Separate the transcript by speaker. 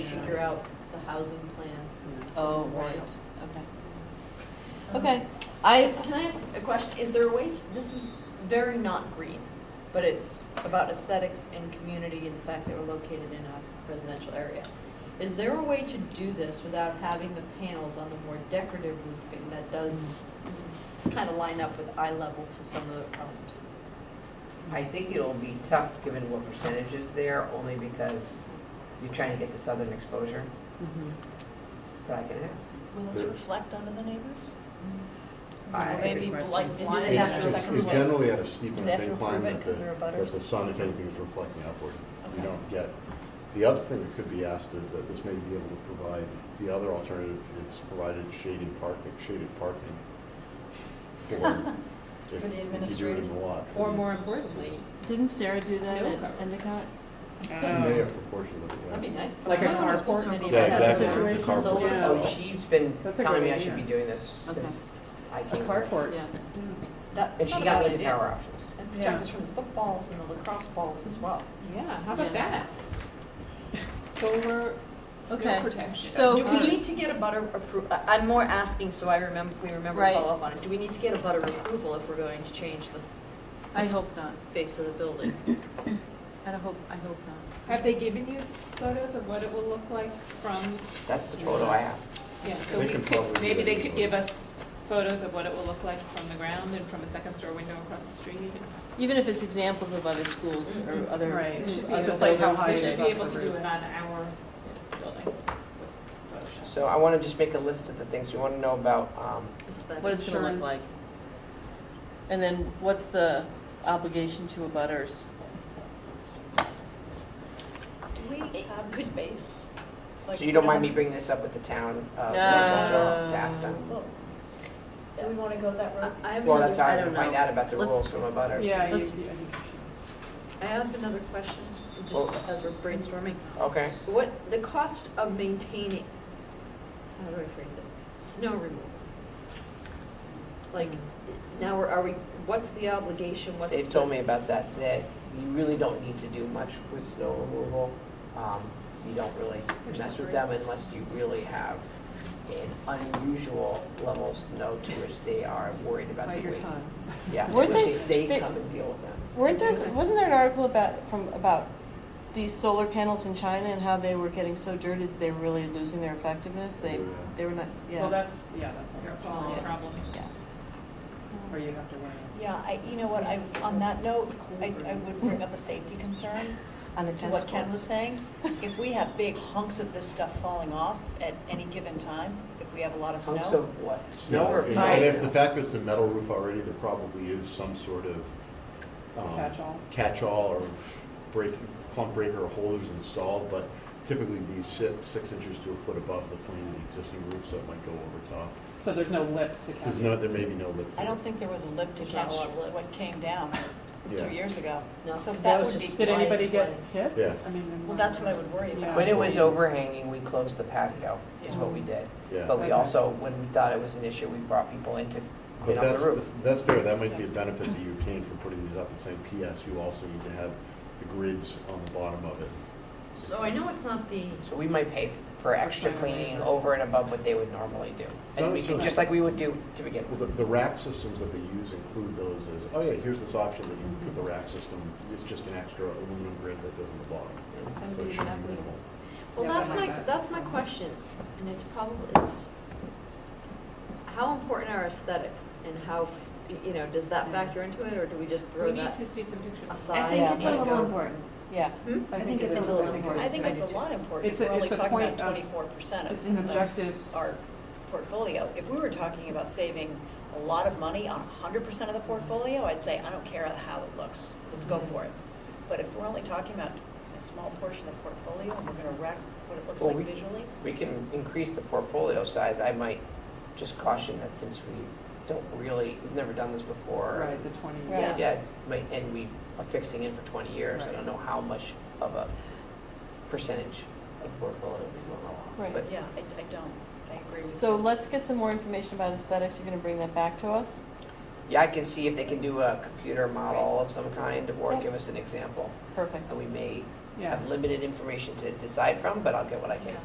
Speaker 1: figure out the housing plan.
Speaker 2: Oh,
Speaker 1: Right.
Speaker 2: right, okay. Okay, I,
Speaker 1: Can I ask a question? Is there a way, to- this is very not green, but it's about aesthetics and community and the fact that we're located in a residential area. Is there a way to do this without having the panels on the more decorative roofing that does kind of line up with eye level to some of the homes?
Speaker 3: I think it'll be tough, given what percentage is there, only because you're trying to get the southern exposure, but I can ask.
Speaker 4: Will this reflect onto the neighbors?
Speaker 3: I-
Speaker 4: Will they be like
Speaker 1: They do
Speaker 4: blinded
Speaker 1: that
Speaker 5: It's
Speaker 1: for
Speaker 4: after
Speaker 1: a
Speaker 4: a
Speaker 5: it's-
Speaker 1: second
Speaker 4: second
Speaker 5: it's
Speaker 4: floor?
Speaker 5: generally at a steep
Speaker 1: Do
Speaker 5: and
Speaker 1: they have
Speaker 5: thin
Speaker 1: to
Speaker 5: climb
Speaker 1: approve it
Speaker 5: that
Speaker 1: 'cause
Speaker 5: the,
Speaker 1: they're abutters?
Speaker 5: that the sun, if anything, is reflecting upward.
Speaker 4: Okay.
Speaker 5: You don't get, the other thing that could be asked is that this may be able to provide, the other alternative is provided shading parking, shaded parking. For
Speaker 4: For
Speaker 5: if-
Speaker 4: the
Speaker 5: If you do it in
Speaker 4: administrators.
Speaker 5: the lot. for
Speaker 6: Or
Speaker 5: the-
Speaker 6: more importantly,
Speaker 2: Didn't Sarah do that
Speaker 6: Snow
Speaker 2: at
Speaker 6: cover.
Speaker 2: Endicott?
Speaker 5: You may have proportioned it, yeah.
Speaker 1: That'd be nice.
Speaker 6: Like a
Speaker 1: My mom was supposed to
Speaker 6: carport or
Speaker 1: be
Speaker 5: Yeah,
Speaker 1: had a
Speaker 5: exactly.
Speaker 1: situation
Speaker 5: The carport.
Speaker 1: solar
Speaker 6: Yeah.
Speaker 3: So
Speaker 5: Oh.
Speaker 3: she's been
Speaker 6: That's a
Speaker 3: telling me
Speaker 6: great
Speaker 3: I should
Speaker 6: idea.
Speaker 3: be doing this
Speaker 2: Okay.
Speaker 3: since I
Speaker 6: a
Speaker 3: came.
Speaker 6: carport.
Speaker 2: Yeah.
Speaker 1: That-
Speaker 3: And she
Speaker 1: not a
Speaker 3: got
Speaker 1: bad
Speaker 3: me the
Speaker 1: idea.
Speaker 3: power options.
Speaker 1: And
Speaker 6: Yeah.
Speaker 1: protect us from the footballs and the lacrosse balls as well.
Speaker 6: Yeah, how
Speaker 2: Yeah.
Speaker 6: about that? Solar,
Speaker 2: Okay,
Speaker 6: snow protection.
Speaker 2: so-
Speaker 1: Do we need to get a butter appro, I- I'm more asking so I remember, we remember to
Speaker 2: Right.
Speaker 1: follow up on it. Do we need to get a butter approval if we're going to change the
Speaker 2: I hope not.
Speaker 1: face of the building?
Speaker 2: I hope, I hope not.
Speaker 6: Have they given you photos of what it will look like from,
Speaker 3: That's the photo I have.
Speaker 6: yeah, so
Speaker 5: They
Speaker 6: we
Speaker 5: can
Speaker 6: could,
Speaker 5: probably
Speaker 6: maybe
Speaker 5: do that
Speaker 6: they could
Speaker 5: as
Speaker 6: give
Speaker 5: well.
Speaker 6: us photos of what it will look like from the ground and from a second store window across the street?
Speaker 2: Even if it's examples of other schools or other,
Speaker 7: Right, it should be
Speaker 2: other
Speaker 7: just like how
Speaker 2: buildings
Speaker 7: high
Speaker 2: that
Speaker 7: it
Speaker 6: We
Speaker 2: they-
Speaker 6: should be
Speaker 7: off
Speaker 6: able
Speaker 7: the
Speaker 6: to do
Speaker 7: roof.
Speaker 6: it on our building with Photoshop.
Speaker 3: So I want to just make a list of the things we want to know about, um,
Speaker 1: Aesthetic.
Speaker 2: what it's gonna look
Speaker 1: Insurance.
Speaker 2: like. And then what's the obligation to abutters?
Speaker 4: Do we have space? Like,
Speaker 3: so you don't mind me
Speaker 4: um,
Speaker 3: bringing this up with the town of
Speaker 2: No.
Speaker 3: Manchester to ask them?
Speaker 4: well, Do we want to go that road?
Speaker 1: I- I have
Speaker 3: Well,
Speaker 1: another-
Speaker 3: that's how
Speaker 2: I
Speaker 3: I
Speaker 2: don't
Speaker 3: can find
Speaker 2: know.
Speaker 3: out about the
Speaker 2: Let's-
Speaker 3: rules from the butters.
Speaker 7: Yeah, you, I
Speaker 2: Let's-
Speaker 7: think you
Speaker 1: I have another question, just
Speaker 3: Oh.
Speaker 1: as we're brainstorming.
Speaker 3: Okay,
Speaker 1: What, the cost of maintaining, how do I phrase it, snow removal? Like, now we're, are we, what's the obligation, what's the?
Speaker 3: they've told me about that, that you really don't need to do much with snow removal. Um, You don't really mess with them unless you really have an unusual level of snow to which they are worried about the
Speaker 7: bite
Speaker 3: weight.
Speaker 7: your time.
Speaker 3: Yeah,
Speaker 2: Weren't
Speaker 3: which
Speaker 2: they
Speaker 3: is they
Speaker 2: sti-
Speaker 3: come and deal with them.
Speaker 2: Weren't there, wasn't there an article about, from, about these solar panels in China and how they were getting so dirty, that they were really losing their effectiveness? They,
Speaker 5: Yeah.
Speaker 2: they were not,
Speaker 7: Well,
Speaker 2: yeah,
Speaker 7: that's, yeah, that's,
Speaker 6: It's
Speaker 7: also
Speaker 6: all a
Speaker 2: Yeah.
Speaker 6: problem.
Speaker 2: yeah.
Speaker 7: where you have to worry.
Speaker 4: Yeah, I, you know what, I, on that note, I, I would bring up a safety concern
Speaker 2: On the
Speaker 4: to
Speaker 2: tennis
Speaker 4: what Ken was
Speaker 2: courts.
Speaker 4: saying. If we have big hunks of this stuff falling off at any given time, if we have a lot of
Speaker 3: Hunks
Speaker 4: snow,
Speaker 3: of what?
Speaker 5: Yeah,
Speaker 3: Snow or
Speaker 5: and- And if the
Speaker 3: ice?
Speaker 5: fact that it's a metal roof already, there probably is some sort of. um,
Speaker 7: Catch-all.
Speaker 5: Catch-all or break, clump breaker or holders installed, but typically these sit six inches to a foot above the plane of the existing roof, so it might go over top.
Speaker 7: So there's no lift to
Speaker 5: There's
Speaker 7: catch.
Speaker 5: no, there may be no lip. to
Speaker 4: I
Speaker 5: it.
Speaker 4: don't think there was a lip to
Speaker 1: There's not a
Speaker 4: catch
Speaker 1: lot of lip.
Speaker 4: what came down
Speaker 5: Yeah.
Speaker 4: two years ago.
Speaker 1: No,
Speaker 4: So
Speaker 1: that
Speaker 4: that
Speaker 1: was
Speaker 4: would be,
Speaker 1: just-
Speaker 7: Did anybody get hit?
Speaker 5: Yeah.
Speaker 7: I mean.
Speaker 4: well, that's what I would worry
Speaker 7: Yeah.
Speaker 4: about.
Speaker 3: When it was overhanging, we closed the patio, is what we did.
Speaker 5: Yeah.
Speaker 3: But we
Speaker 7: Okay.
Speaker 3: also, when we thought it was an issue, we brought people in to
Speaker 5: But
Speaker 3: clean up
Speaker 5: that's,
Speaker 3: the roof.
Speaker 5: that's fair, that might be a benefit that you obtain for putting these up and saying, PS, you also need to have the grids on the bottom of it.
Speaker 1: So I know it's not the
Speaker 3: So we might pay for extra cleaning over and above what they would normally do. And we
Speaker 5: So-
Speaker 3: could,
Speaker 5: so-
Speaker 3: just like we would do to begin
Speaker 5: Well,
Speaker 3: with.
Speaker 5: the, the rack systems that they use include those as, oh yeah, here's this option that you put the rack system, it's just an extra aluminum grid that goes on the bottom. So it should be minimal.
Speaker 1: Well,
Speaker 7: Yeah,
Speaker 1: that's
Speaker 7: but
Speaker 1: my,
Speaker 7: like that.
Speaker 1: that's my question, and it's probably, it's, how important are aesthetics and how, y- you know, does that factor into it, or do we just
Speaker 6: We
Speaker 1: throw
Speaker 6: need
Speaker 1: that
Speaker 6: to see some pictures. of
Speaker 1: aside?
Speaker 2: think it's a
Speaker 1: and-
Speaker 2: little
Speaker 7: important.
Speaker 2: Yeah,
Speaker 1: Hmm?
Speaker 7: I think it is
Speaker 1: a
Speaker 7: a
Speaker 1: little
Speaker 7: little important.
Speaker 4: I think it's a lot important. if
Speaker 7: It's a-
Speaker 4: We're only
Speaker 7: it's a
Speaker 4: talking about
Speaker 7: point of-
Speaker 4: twenty-four percent of.
Speaker 7: It's an
Speaker 4: of
Speaker 7: objective,
Speaker 4: our portfolio. If we were talking about saving a lot of money on hundred percent of the portfolio, I'd say, I don't care how it looks, let's go for it. But if we're only talking about a small portion of the portfolio, and we're gonna wreck what it looks
Speaker 3: Well,
Speaker 4: like
Speaker 3: we-
Speaker 4: visually,
Speaker 3: We can increase the portfolio size. I might just caution that since we don't really, we've never done this before.
Speaker 7: right, the twenty.
Speaker 4: Yeah.
Speaker 3: Yeah, it's my- and we are fixing it for 20 years. I
Speaker 7: Right.
Speaker 3: don't know how much of a percentage of portfolio we will allow.
Speaker 2: Right.
Speaker 3: But
Speaker 4: yeah, I, I don't, I agree with
Speaker 2: so let's get some more information about aesthetics, you're gonna bring that back to us?
Speaker 3: Yeah, I can see if they can do a computer model of some kind or
Speaker 2: Yep.
Speaker 3: give us an example.
Speaker 2: Perfect,
Speaker 3: And we may
Speaker 7: Yeah.
Speaker 3: have limited information to decide from, but I'll get what I
Speaker 4: you.
Speaker 3: can.